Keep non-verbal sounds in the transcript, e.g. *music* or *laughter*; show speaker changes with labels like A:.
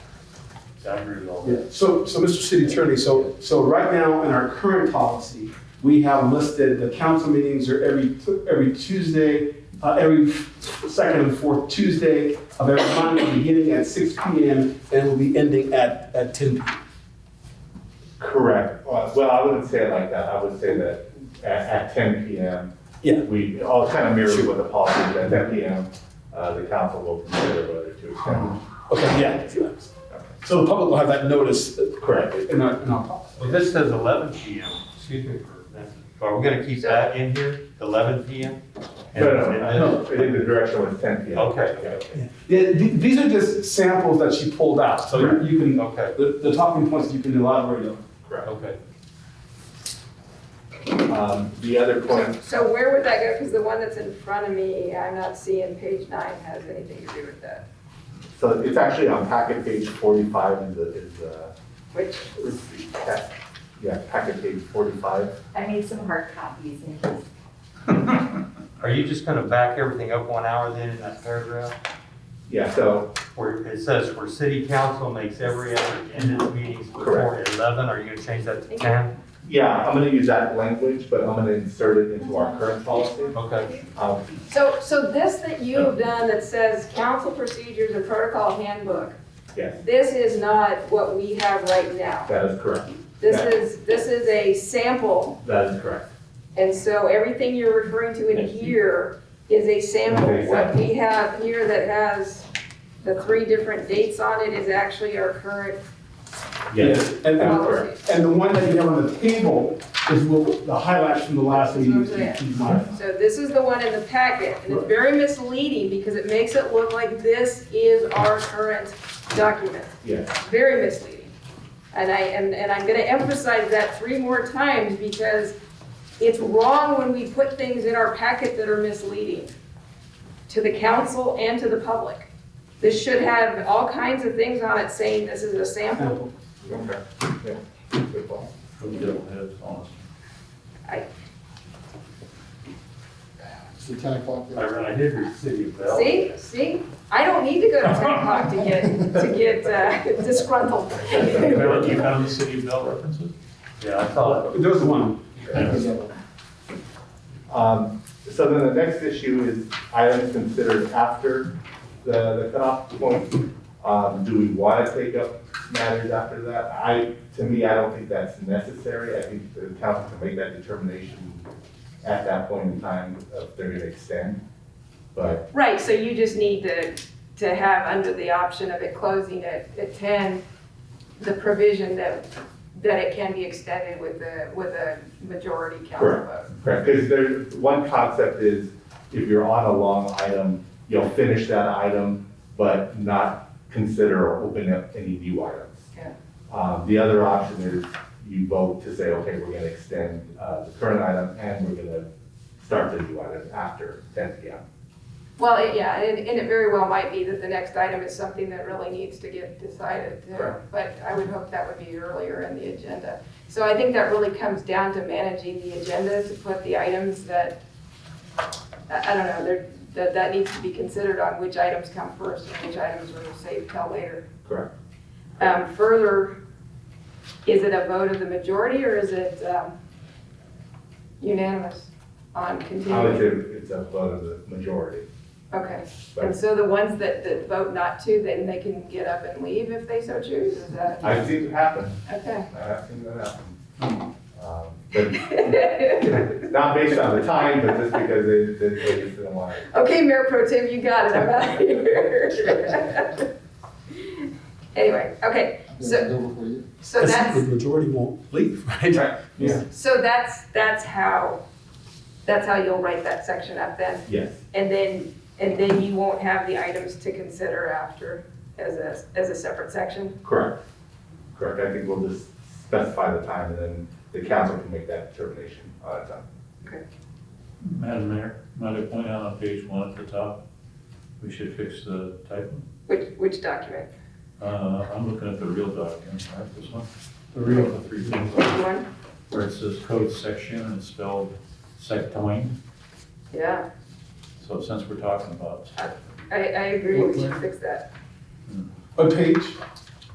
A: I agree with all
B: Yeah,
A: that.
B: So, so Mr. City Attorney, so, so right now in our current policy, we have listed the council meetings are every, every Tuesday, uh, every second and fourth Tuesday of every month, beginning at six P M and will be ending at, at ten P M.
C: Correct. Well, well, I wouldn't say it like that. I would say that at, at ten PM.
B: Yeah.
C: We, all kind of mirror
B: Sure.
C: what the policy, is. at ten PM, uh, the council will consider whether to extend.
B: Okay, yeah. So the public will have that notice. Correct. In our, in our policy.
A: Well, this says eleven PM, excuse me for, that. are we gonna keep that in here, eleven PM? And-
C: No, no,
A: and-
C: no, I think the direction was ten PM.
A: Okay, okay,
B: Yeah, th- these are just samples that she pulled out, so you- you can,
A: okay,
B: the, the talking points you can elaborate on.
C: Correct.
A: okay.
C: Um, the other point,
D: So where would that go? Because the one that's in front of me, I'm not seeing page nine has anything to do with that,
C: so it's actually on packet page forty-five is, the- is, uh,
D: which,
C: is the pack- yeah, packet page forty-five.
E: I made some hard copies in case.
A: Are you just gonna back everything up one hour then in that paragraph?
C: Yeah, so,
A: Where it says, where city council makes every effort to end its meetings before eleven, are you gonna change that to ten?
C: yeah, I'm gonna use that language, but I'm gonna insert it into our current policy.
A: Okay,
C: Um,
D: so, so this that you have done that says council procedures and protocol handbook,
C: yes,
D: this is not what we have right now.
C: that is correct.
D: This
C: Yeah.
D: is, this is a sample,
C: That is correct.
D: and so everything you're referring to in here is a sample.
C: Okay,
D: What
C: exactly.
D: we have here that has the three different dates on it is actually our current
C: Yes.
B: And, and
D: policy.
B: And the one that you have on the table is what, the highlights from the last meeting.
D: That's what I'm
B: you might-
D: So this is the one in the packet, and it's very misleading because it makes it look like this is our current document.
C: Yes,
D: Very misleading. And I, and, and I'm gonna emphasize that three more times because it's wrong when we put things in our packet that are misleading to the council and to the public. This should have all kinds of things on it saying this is a sample.
C: okay, yeah, good point.
A: Who double heads on us?
F: It's the ten o'clock.
A: I re- I did read City of Bell.
D: See, see, I don't need to go to ten o'clock to get, to get uh, *laughs* disgruntled.
A: you found the City of Bell references? Yeah, I thought.
B: There was one.
C: Um, So then the next issue is items considered after the the cutoff point. Um, Do we want to take up matters after that? I, to me, I don't think that's necessary. I think the council can make that determination at that point in time if they're going to extend. But
D: Right, so you just need to, to have under the option of it closing at, at ten, the provision that, that it can be extended with a, with a majority council vote.
C: Correct, because there's, one concept is if you're on a long item, you'll finish that item, but not consider or open up any new items.
D: Yeah.
C: Um, the other option is you vote to say, okay, we're gonna extend, uh, the current item and we're gonna start the new item after ten P M.
D: Well, it- yeah, and, and it very well might be that the next item is something that really needs to get decided too.
C: Correct.
D: But I would hope that would be earlier in the agenda. So I think that really comes down to managing the agenda to put the items that, I, I don't know, there, that, that needs to be considered on which items come first and which items are saved till later.
C: Correct.
D: Um, further, is it a vote of the majority or is it, um, unanimous on
C: I would
D: continuing?
C: say it's a vote of the majority.
D: Okay. And so the ones that, that vote not to, then they can get up and leave if they so choose, is that,
C: I've seen it happen,
D: okay? *laughs*
C: I've seen that happen. Um,
D: *laughs*
C: But not based on the time, but just because they, they they just didn't want to
D: Okay, Mayor Pro Tem, you got it, I'm out of here. *laughs* Anyway, okay, So-
F: Double for you.
D: so that's,
B: majority won't leave, *laughs* right? Yeah.
D: so that's, that's how, that's how you'll write that section up then?
C: Yes.
D: And then, and then you won't have the items to consider after as a, as a separate section?
C: Correct. Correct, I think we'll just specify the time and then the council can make that determination on its own.
G: Madam Mayor, might I point out on page one at the top, we should fix the typo.
D: Which, which document?
G: Uh, I'm looking at the real document, right, this one?
B: The real-
G: The three things,
D: Which one?
G: where it says code section and it's spelled sectoin.
D: Yeah,
G: So since we're talking about
D: I, I agree, we should fix that.
B: What page?